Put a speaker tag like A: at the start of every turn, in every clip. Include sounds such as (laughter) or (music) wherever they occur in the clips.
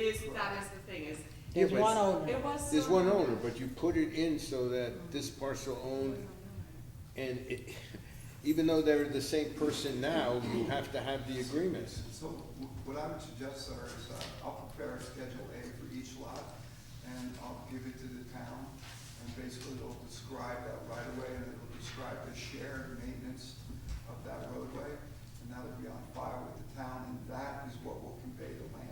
A: is, that is the thing, is,
B: There's
C: Yeah, but
B: one owner.
A: it was.
C: There's
A: sort
C: one
A: of-
C: owner, but you put it in so that this parcel owned, and it, even though they're the same person now, you have to have the agreements.
D: So wh- what I would suggest, sir, is uh, I'll prepare a Schedule A for each lot, and I'll give it to the town, and basically it'll describe that right of way, and it'll describe the shared maintenance of that roadway, and that'll be on file with the town, and that is what will convey the land.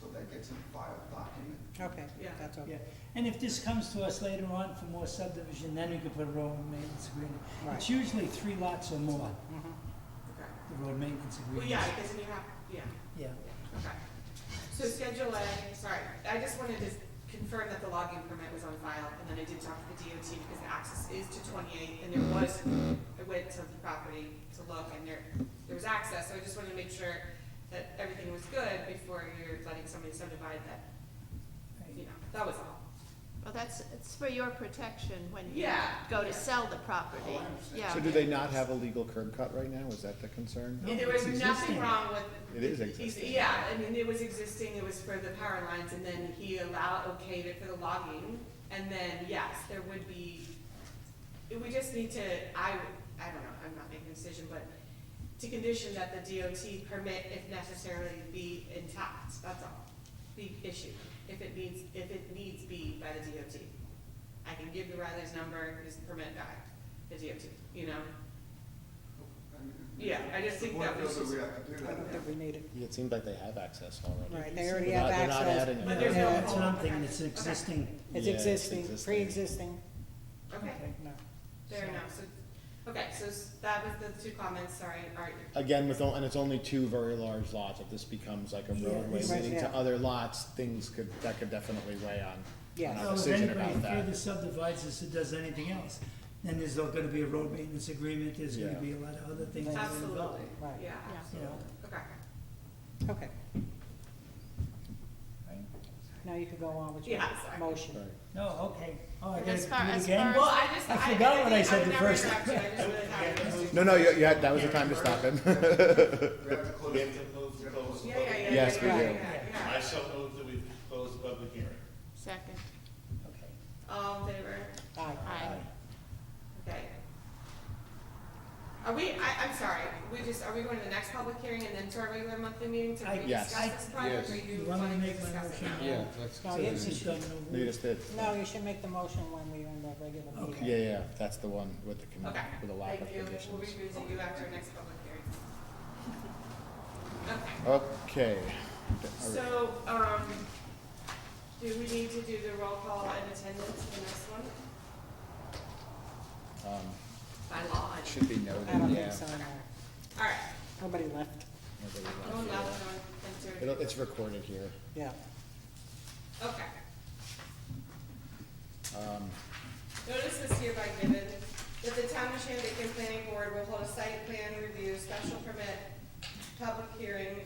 D: So that gets in file document.
B: Okay,
A: Yeah.
B: that's
E: Yeah,
B: okay.
E: and if this comes to us later on for more subdivision, then we can put a road maintenance agreement.
B: Right.
E: It's usually three lots or more,
A: Okay.
E: the road maintenance
A: Well,
E: agreement.
A: yeah, because then you have, yeah,
E: Yeah,
A: okay. So Schedule A, sorry, I just wanted to confirm that the logging permit was on file, and then I did talk to the DOT because the access is to twenty-eight, and there was, I went to the property to look, and there, there was access, so I just wanted to make sure that everything was good before you're letting somebody subdivide that, you know, that was all.
F: Well, that's, it's for your protection when you
A: Yeah,
F: go
A: yeah. Oh,
F: to sell the property, yeah.
G: So do they not have a legal curb cut right now? Is that the concern?
A: And there was
E: It's
A: nothing
E: existing.
A: wrong with.
G: It is
A: the-
G: existing.
A: Yeah, I mean, it was existing, it was for the power lines, and then he allowed, okayed it for the logging, and then, yes, there would be, we just need to, I, I don't know, I'm not making a decision, but to condition that the DOT permit, if necessarily, be intact, that's all, be issued, if it needs, if it needs be by the DOT. I can give the Riley's number, his permit guy, the DOT, you know?
D: I mean,
A: Yeah, I just think
D: the board
A: that was
D: feels
A: just-
D: we have to do
B: I don't
D: that.
B: think we need it.
G: It seems like they have access already.
B: Right, they already
G: They're not-
B: have
G: they're not
B: access.
G: adding
A: But
G: it.
A: there's
E: Yeah,
A: no
E: that's what I'm
A: hole.
E: thinking, it's
A: Okay.
E: existing.
B: It's
G: Yeah, it's
B: existing,
G: existing.
B: pre-existing.
A: Okay.
B: No.
A: Fair enough, so, okay, so s- that was the two comments, sorry, alright,
G: Again, with, on- and it's only two very large lots. If this becomes like a
E: Yeah,
G: roadway
E: it's-
G: leading to
B: yeah.
G: other lots, things could, that could definitely weigh on- on
B: Yes.
G: our
E: So if
G: decision
E: Oh, anybody
G: about
E: further
G: that.
E: subdivides this or does anything else, then there's not gonna be a road maintenance agreement, there's gonna
G: Yeah.
E: be a lot of other things. that are involved.
A: absolutely,
B: Right.
A: yeah,
F: Yeah.
E: You
A: absolutely,
E: know,
A: okay.
B: Okay, now you can go on with your
A: Yeah, sorry.
B: motion.
G: Right.
E: no, okay, oh, I
F: And
E: gotta
F: as far-
E: do it
F: as
E: again?
F: far
A: Well, I just,
E: I
A: I, I
E: forgot what I
A: think I
E: said
A: would
E: the
A: never
E: first
A: interrupt you, I just really thought it
E: (laughs)
A: was.
G: No, no, you, you had, that was the time to stop him.
D: We have to
H: We
D: close it.
H: have to move to close the
A: Yeah,
H: public.
A: yeah, yeah, yeah,
G: Yes, we
A: yeah,
G: do.
A: yeah, yeah.
H: I shall move that we close the public hearing.
F: Second,
E: Okay.
A: All in favor,
B: Aye.
F: aye.
A: okay. Are we, I, I'm sorry, we just, are we going to the next public hearing and then to our regular monthly meeting to
E: I-
A: rediscuss
G: Yes.
A: this project, or
C: Yes.
A: you
E: You want me to
A: wanting to
E: make my
A: discuss it
E: motion?
A: now?
C: Yeah, that's,
B: No,
E: So
B: you-
E: this is done over.
G: (laughs) You just did.
B: No, you should make the motion when we're in the regular meeting.
E: Okay.
G: Yeah, yeah, that's the one with the, commu-
A: Okay,
G: with the lack of
A: thank you, we'll
G: conditions.
A: revisit you after our next public
G: (laughs)
A: hearing. Okay.
G: Okay.
A: So, um, do we need to do the roll call and attendance in this one?
G: Um,
A: By law. I-
G: Should be
B: I
G: noted,
B: don't think
G: yeah.
B: so, no.
A: All right,
B: Nobody left,
G: Nobody
A: no one left, no
G: left, yeah.
A: one entered.
G: It'll, it's recorded here.
B: yeah.
A: Okay.
G: Um,
A: Notice is hereby given that the town of Shandaken Planning Board will hold a site plan review, special permit, public hearing,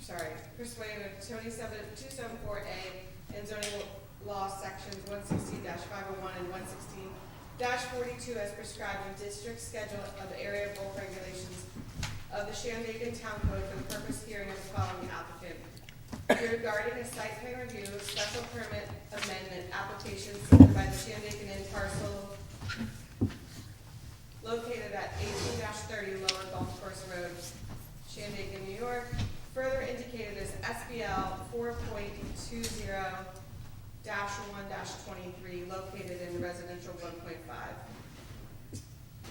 A: sorry, pursuant to twenty-seven, two-seven-four A and zoning law sections one sixteen five oh one and one sixteen forty-two as prescribed in district schedule of the area bulk regulations of the Shandaken Town Code for the purpose hearing of the following applicant. Regarding a site plan review, special permit amendment application submitted by the Shandaken Inn parcel located at eighteen thirty Lower Golf Course Road, Shandaken, New York, further indicated as SBL four point two zero one twenty-three, located in residential one point five.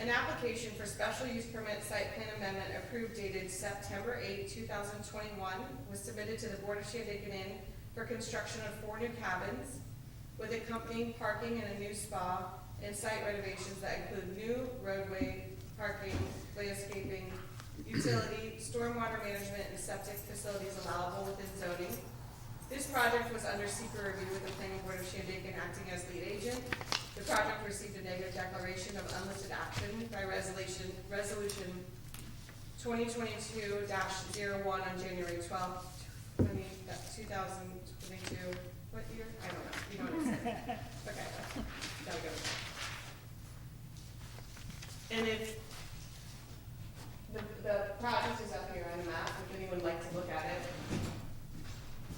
A: An application for special use permit site plan amendment approved dated September 8, thousand twenty-one was submitted to the Board of Shandaken Inn for construction of four new cabins with accompanying parking and a new spa and site renovations that include new roadway, parking, landscaping, utility, stormwater management, and septic facilities allowable within zoning. This project was under secret review with the planning board of Shandaken acting as lead agent. The project received a negative declaration of unlisted action by resolution, resolution twenty twenty-two one on January twelfth, twenty, uh, two thousand twenty-two. What year? I don't know. You know what I'm saying? Okay, gotta go. And if the, the project